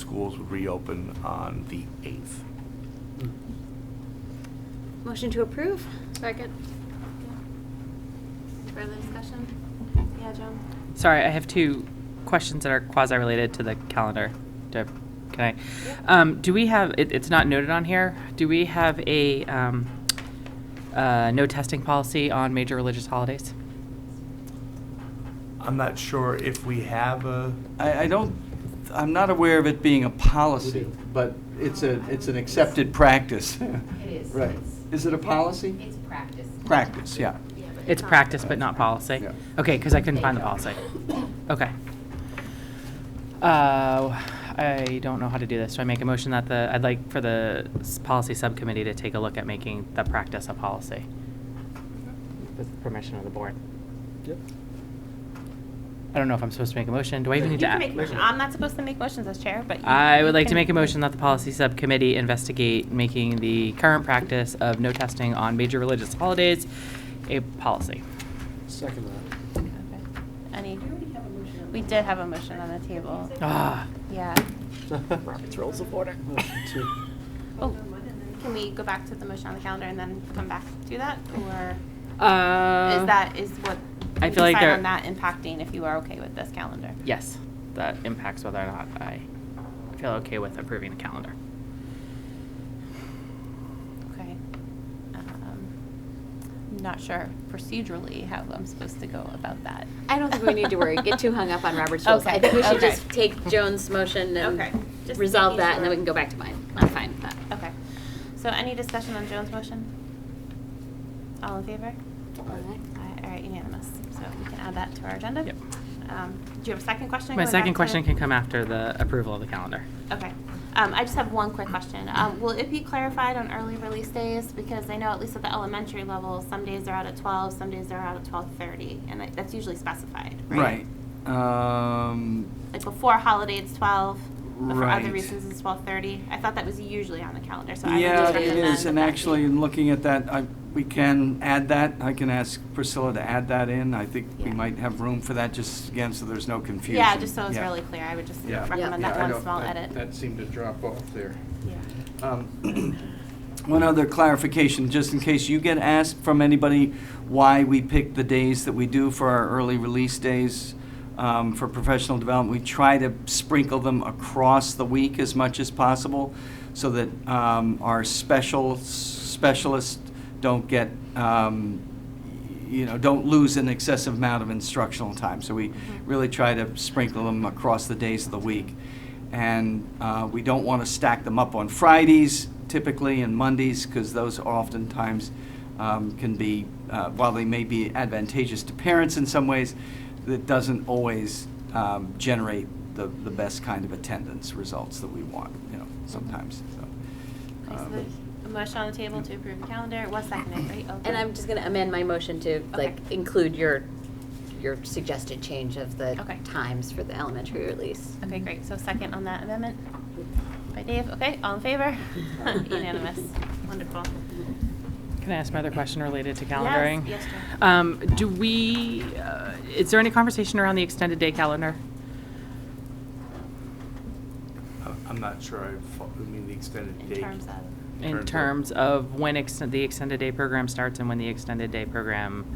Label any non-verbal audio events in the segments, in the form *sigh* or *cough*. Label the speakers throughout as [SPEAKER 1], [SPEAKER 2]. [SPEAKER 1] schools would reopen on the 8th.
[SPEAKER 2] Motion to approve?
[SPEAKER 3] Second. Further discussion? Yeah, Joan?
[SPEAKER 4] Sorry, I have two questions that are quasi-related to the calendar. Do I- Can I? Um, do we have, it, it's not noted on here, do we have a, um, uh, no testing policy on major religious holidays?
[SPEAKER 1] I'm not sure if we have a,
[SPEAKER 5] I, I don't, I'm not aware of it being a policy, but it's a, it's an accepted practice. *laughs*
[SPEAKER 6] It is.
[SPEAKER 5] Right.
[SPEAKER 6] It's-
[SPEAKER 5] Is it a policy?
[SPEAKER 6] It's practice.
[SPEAKER 5] Practice, yeah.
[SPEAKER 4] It's practice but not policy?
[SPEAKER 5] Yeah.
[SPEAKER 4] Okay, because I couldn't find the policy.
[SPEAKER 6] *coughs*
[SPEAKER 4] Okay. Uh, I don't know how to do this. Do I make a motion that the, I'd like for the s- policy subcommittee to take a look at making the practice a policy? With permission of the board.
[SPEAKER 7] Yep.
[SPEAKER 4] I don't know if I'm supposed to make a motion. Do I even
[SPEAKER 3] You
[SPEAKER 4] need to?
[SPEAKER 3] can
[SPEAKER 4] a-
[SPEAKER 3] make a motion. I'm not supposed to make motions as chair, but. you-
[SPEAKER 4] I
[SPEAKER 3] you
[SPEAKER 4] would like to
[SPEAKER 3] can-
[SPEAKER 4] make a motion that the policy subcommittee investigate making the current practice of no testing on major religious holidays a policy.
[SPEAKER 7] Second that.
[SPEAKER 3] Okay. Any, we did have a motion on the table.
[SPEAKER 4] Ah,
[SPEAKER 3] Yeah. *laughs*
[SPEAKER 7] Robert's Rules of Order.
[SPEAKER 3] Oh, can we go back to the motion on the calendar and then come back to that? Or
[SPEAKER 4] uh.
[SPEAKER 3] is that, is what?
[SPEAKER 4] I
[SPEAKER 3] we
[SPEAKER 4] feel like
[SPEAKER 3] decide
[SPEAKER 4] there-
[SPEAKER 3] On that impacting if you are okay with this calendar?
[SPEAKER 4] Yes, that impacts whether or not I feel okay with approving the calendar.
[SPEAKER 3] Okay. Um, I'm Not sure procedurally how I'm supposed to go about that.
[SPEAKER 2] I don't think we need to worry, get too hung up on Robert's rules. I
[SPEAKER 3] Okay,
[SPEAKER 2] think we should
[SPEAKER 3] okay.
[SPEAKER 2] just take Joan's motion
[SPEAKER 3] Okay,
[SPEAKER 2] and
[SPEAKER 3] just
[SPEAKER 2] resolve
[SPEAKER 3] making
[SPEAKER 2] that, and then we
[SPEAKER 3] sure.
[SPEAKER 2] can go back to mine. I'm fine with that.
[SPEAKER 3] Okay. So any discussion on Joan's motion? All in favor? Aye, All right, unanimous. So we can add that to our agenda.
[SPEAKER 4] Yep.
[SPEAKER 3] Um, Do you have a second question?
[SPEAKER 4] My
[SPEAKER 3] going back
[SPEAKER 4] second
[SPEAKER 3] to-
[SPEAKER 4] question can come after the approval of the calendar.
[SPEAKER 3] Okay. Um, I just have one quick question. Um, Will it be clarified on early release days? Because I know at least at the elementary level, some days are out at 12, some days are out at 12:30, and that- that's usually specified, right?
[SPEAKER 5] Right. Um,
[SPEAKER 3] Like before holiday, it's 12, but for other
[SPEAKER 5] Right.
[SPEAKER 3] reasons, it's 12:30. I thought that was usually on the calendar, so I would
[SPEAKER 5] Yeah,
[SPEAKER 3] just
[SPEAKER 5] it
[SPEAKER 3] recommend
[SPEAKER 5] is, and
[SPEAKER 3] that that
[SPEAKER 5] actually,
[SPEAKER 3] be-
[SPEAKER 5] in looking at that, I, we can add that, I can ask Priscilla to add that in, I think we
[SPEAKER 3] Yeah.
[SPEAKER 5] might have room for that, just again, so there's no confusion.
[SPEAKER 3] Yeah, just so it's
[SPEAKER 5] Yeah.
[SPEAKER 3] really clear, I would just
[SPEAKER 5] Yeah.
[SPEAKER 3] recommend
[SPEAKER 5] Yeah,
[SPEAKER 3] that
[SPEAKER 5] I
[SPEAKER 3] one
[SPEAKER 5] don't-
[SPEAKER 3] small
[SPEAKER 5] that-
[SPEAKER 3] edit.
[SPEAKER 5] That seemed to drop off there.
[SPEAKER 3] Yeah.
[SPEAKER 5] Um, *clears throat* One other clarification, just in case you get asked from anybody why we pick the days that we do for our early release days um, for professional development, we try to sprinkle them across the week as much as possible so that um, our special, specialists don't get, um, you know, don't lose an excessive amount of instructional time. So we really try to sprinkle them across the days of the week. And uh, we don't want to stack them up on Fridays typically and Mondays because those oftentimes um, can be, uh, while they may be advantageous to parents in some ways, that doesn't always um, generate the, the best kind of attendance results that we want, you know, sometimes, so.
[SPEAKER 3] Okay, so
[SPEAKER 5] um,
[SPEAKER 3] there's a motion on the table to approve the calendar, it was seconded, right? Oh,
[SPEAKER 2] And I'm just gonna amend my motion to, like,
[SPEAKER 3] Okay.
[SPEAKER 2] include your, your suggested change of the
[SPEAKER 3] Okay.
[SPEAKER 2] times for the elementary release.
[SPEAKER 3] Okay, great, so second on that amendment by Dave, okay, all in favor? *laughs* Unanimous, wonderful.
[SPEAKER 4] Can I ask my other question related to calendaring?
[SPEAKER 3] yes, Jen.
[SPEAKER 4] Um, do we, uh, is there any conversation around the extended day calendar?
[SPEAKER 1] I- Uh, I'm not sure, I fo- I mean, the extended
[SPEAKER 3] In
[SPEAKER 1] date.
[SPEAKER 3] terms of,
[SPEAKER 4] In terms of when exten- the extended day program starts and when the extended day program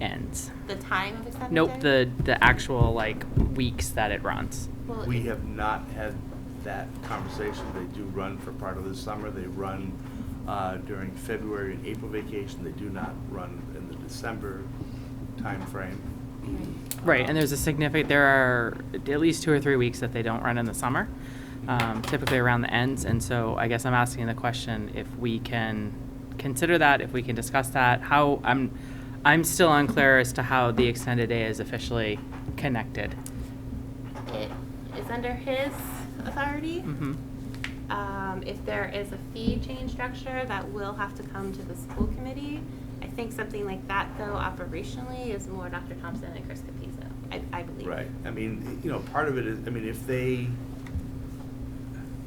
[SPEAKER 4] ends?
[SPEAKER 3] the time of extended
[SPEAKER 4] Nope,
[SPEAKER 3] day?
[SPEAKER 4] the, the actual like weeks that it runs.
[SPEAKER 3] Well,
[SPEAKER 1] We
[SPEAKER 3] it-
[SPEAKER 1] have not had that conversation. They do run for part of the summer. They run uh, during February and April vacation. They do not run in the December timeframe. Oh.
[SPEAKER 4] Right, and there's a significant, there are at least two or three weeks that they don't run in the summer, um, typically around the ends. And so I guess I'm asking the question if we can consider that, if we can discuss that, how, I'm, I'm still unclear as to how the extended day is officially connected.
[SPEAKER 3] It is under his authority.
[SPEAKER 4] Mm-hmm,
[SPEAKER 3] Um, If there is a fee change structure, that will have to come to the school committee. I think something like that, though, operationally, is more Dr. Thompson and Chris Capizzo, I, I believe.
[SPEAKER 1] Right. I mean, you know, part of it is, I mean, if they,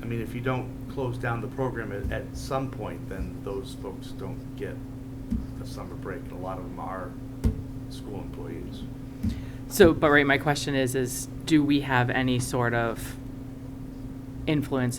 [SPEAKER 1] I mean, if you don't close down the program at, at some point, then those folks don't get a summer break. And a lot of them are school employees.
[SPEAKER 4] So, but right, my question is, is do we have any sort of influence